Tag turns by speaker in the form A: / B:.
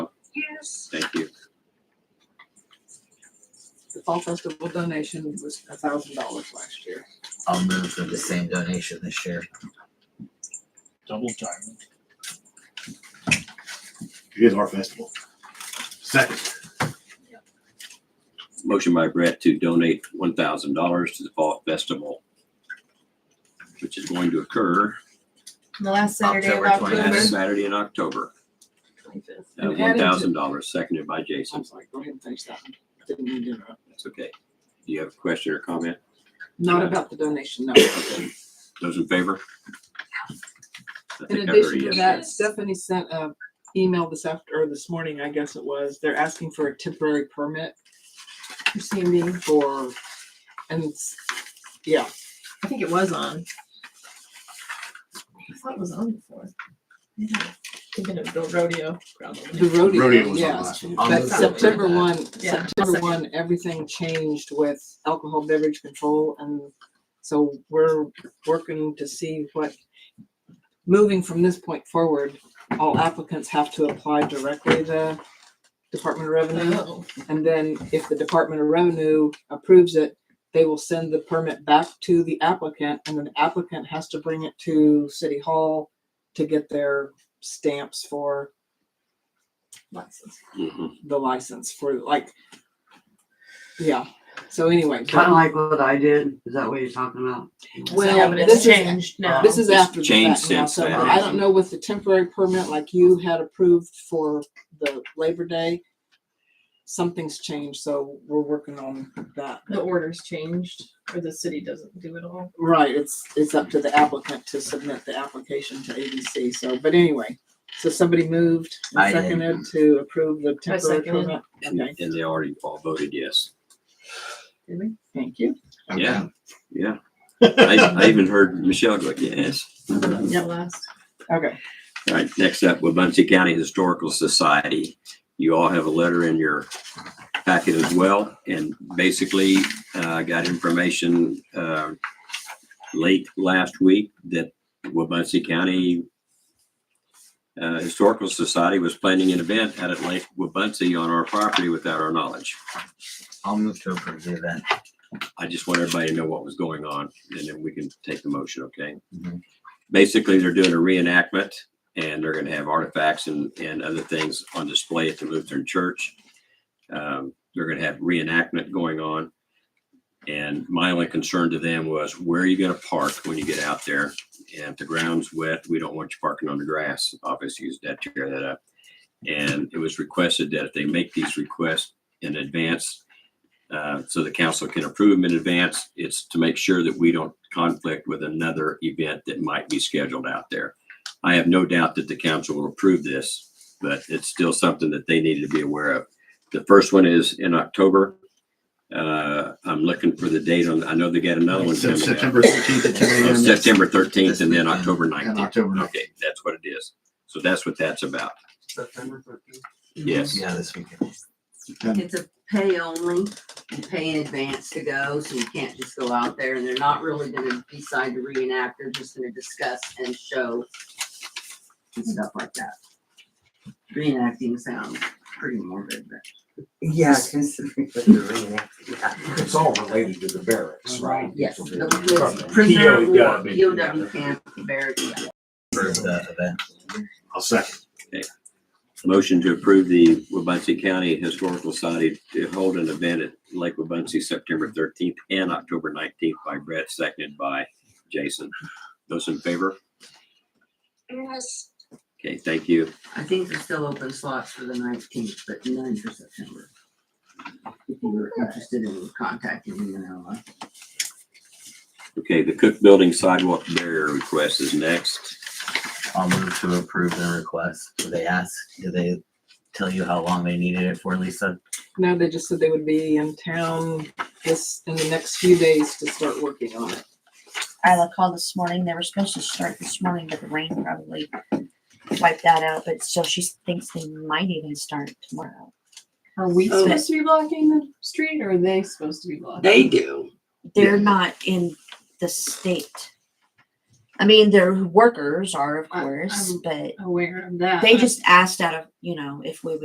A: Yes.
B: Thank you.
C: The Fall Festival donation was a thousand dollars last year.
D: I'll move for the same donation this year.
E: Double diamond.
F: It is our festival. Second.
B: Motion by Brett to donate one thousand dollars to the Fall Festival, which is going to occur
A: The last Saturday of
D: October
A: October.
B: last Saturday in October. Uh,
C: And
B: one
C: added to-
B: thousand dollars, seconded by
C: I'm
B: Jason.
C: sorry, go ahead and finish that one. Didn't mean to interrupt.
B: That's okay. Do you have a question or comment?
C: Not about the donation, no.
B: Those in favor? I
C: In
B: think I've
C: addition
B: already
C: to
B: asked
C: that,
A: Yes.
C: Stephanie sent a email this after, or this morning, I guess it was, they're asking for a temporary permit for CME for, and it's, yeah,
A: I think it was on. I thought it was on before. Yeah. Thinking of the rodeo, probably.
C: the rodeo,
F: Rodeo was on
C: yes.
F: last one.
D: I'll
C: But
D: move for
C: September
D: that.
C: one,
A: Yeah.
C: September one, everything changed with alcohol beverage control and so we're working to see what, moving from this point forward, all applicants have to apply directly to the Department of Revenue.
A: Oh,
C: And then if the Department of Revenue approves it, they will send the permit back to the applicant and then the applicant has to bring it to City Hall to get their stamps for
A: license.
B: Mhm.
C: the license for like, yeah. So anyway,
G: Kind of like what I did. Is that what you're talking about?
C: Well,
A: Yeah, but
C: this
A: it's
C: is-
A: changed now.
C: this is
B: It's
C: after the
B: changed
C: fact now,
B: since
C: so
B: then.
C: I don't know with the temporary permit like you had approved for the Labor Day. Something's changed, so we're working on that.
A: The order's changed, or the city doesn't do it all.
C: Right, it's, it's up to the applicant to submit the application to ABC, so, but anyway. So somebody moved
D: I
C: and
D: did.
C: seconded to approve the
A: I
C: temporary
A: seconded.
C: permit.
B: And
C: Okay,
B: and they already all voted yes.
A: Did we?
C: thank you.
B: Yeah. Yeah. I, I even heard Michelle go, yes.
A: I thought that was the
C: Yep.
A: last.
C: Okay,
B: All right, next up, Wabunsee County Historical Society. You all have a letter in your packet as well, and basically, uh, got information, uh, late last week that Wabunsee County uh, Historical Society was planning an event out at Lake Wabunsee on our property without our knowledge.
D: I'll move to approve the event.
B: I just want everybody to know what was going on, and then we can take the motion, okay?
D: Mhm.
B: Basically, they're doing a reenactment, and they're gonna have artifacts and, and other things on display at the Lutheran Church. Um, they're gonna have reenactment going on. And my only concern to them was, where are you gonna park when you get out there? And if the ground's wet, we don't want you parking on the grass, obviously, use that to tear that up. And it was requested that if they make these requests in advance, uh, so the council can approve them in advance. It's to make sure that we don't conflict with another event that might be scheduled out there. I have no doubt that the council will approve this, but it's still something that they needed to be aware of. The first one is in October. Uh, I'm looking for the date on, I know they got another one
F: Sep-
B: coming up.
F: September sixteenth at ten
B: Oh,
F: AM.
B: September thirteenth and then
D: This weekend.
B: October
F: And
B: nineteenth.
F: October nineteenth.
B: Okay, that's what it is. So that's what that's about.
G: September thirteenth.
B: Yes.
D: Yeah, this weekend.
G: It's a pay only, you pay in advance to go, so you can't just go out there and they're not really gonna decide to reenact, they're just gonna discuss and show and stuff like that. Reenacting sounds pretty morbid, but.
H: Yeah, considering what you're reading. yeah.
I: It's all related to the barracks, right?
G: Yes, the-
I: From
G: the prisoner of
I: POW, gotta
G: war,
I: be
G: POW camp, barracks, yeah.
D: Approve the event.
F: I'll second.
B: Mm-hmm. Motion to approve the Wabunsee County Historical Society to hold an event at Lake Wabunsee, September thirteenth and October nineteenth by Brett, seconded by Jason. Those in favor?
A: Yes.
B: Okay, thank you.
G: I think there's still open slots for the nineteenth, but none for September. If you were interested in contacting me and I'll, uh,
B: Okay, the Cook Building sidewalk barrier request is next.
D: I'll move to approve the request. Do they ask, do they tell you how long they needed it for, Lisa?
C: no, they just said they would be in town this, in the next few days to start working on it.
J: Isla called this morning. They were supposed to start this morning, but the rain probably wiped that out. But still, she thinks they might even start tomorrow.
A: Are we
G: Oh.
A: supposed to be blocking the street, or are they supposed to be blocking?
G: They do.
J: They're not in the state. I mean, their workers are, of
A: I-
J: course,
A: I'm-
J: but
A: Aware of that.
J: they
A: I-
J: just asked out of, you know, if we would